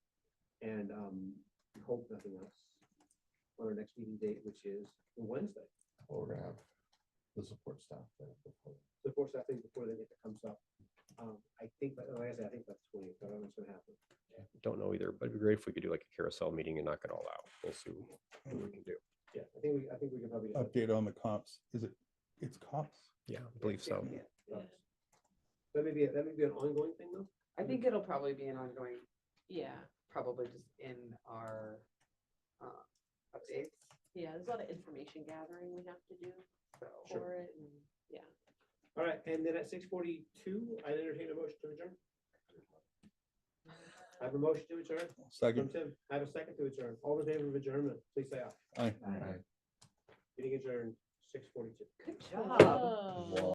And um, we hope nothing else on our next meeting date, which is Wednesday. Well, We're gonna have the support staff there. before. So of course, I think before the date that comes up, um, I think, but like I said, I think that's twenty, but I don't know what's gonna happen. Don't know either, but it'd be great if we could do like a carousel meeting and knock it all out. We'll see what we can do. Yeah, I think we, I think we can probably. just- update on the comps. Is it, it's comps? Yeah, I believe so. Yeah, yeah. That may be, that may be an ongoing thing though. I think it'll probably be an ongoing, Yeah, probably just in our uh, updates, yeah, there's a lot of information gathering we have to do so. for it and, yeah. All right, and then at six forty-two, I entertain a motion to adjourn. I have a motion to adjourn from Second, Tim. I have a second to adjourn. All in favor of adjournment, please say aye. aye. All right. Meeting adjourned six forty-two. Good Oh.